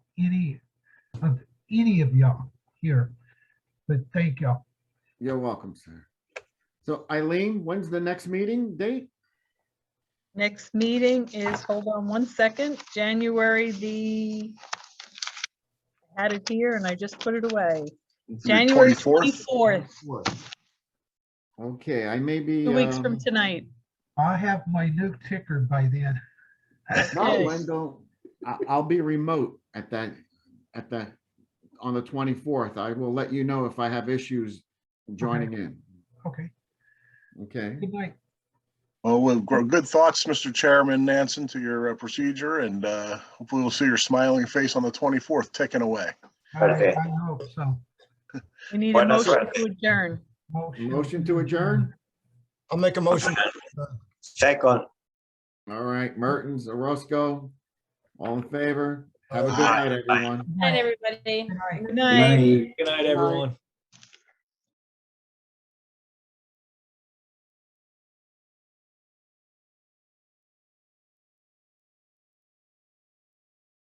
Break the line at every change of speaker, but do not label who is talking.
any of any of y'all here. But thank y'all.
You're welcome, sir. So Eileen, when's the next meeting date?
Next meeting is, hold on one second, January the, I had it here and I just put it away. January 24th,
Okay, I may be.
two weeks from
um,
tonight.
I'll have my new ticker by then.
No,
Yes.
Wendell, I, I'll be remote at that, at that, on the twenty-fourth. I will let you know if I have issues joining in.
Okay,
Okay,
good night.
Well, with gr- good thoughts, Mr. Chairman Nansen, to your uh, procedure, and uh, hopefully we'll see your smiling face on the 24th ticking away.
I-
Okay.
I hope so.
We need a
Buenas
motion to adjourn.
Motion to adjourn?
I'll make a motion.
Second,
all right, Mertens, Orozco, all in favor? Have a good
Aye.
night, everyone.
Good
Night,
night.
everybody.
Good night.
Good night.
Good night, everyone.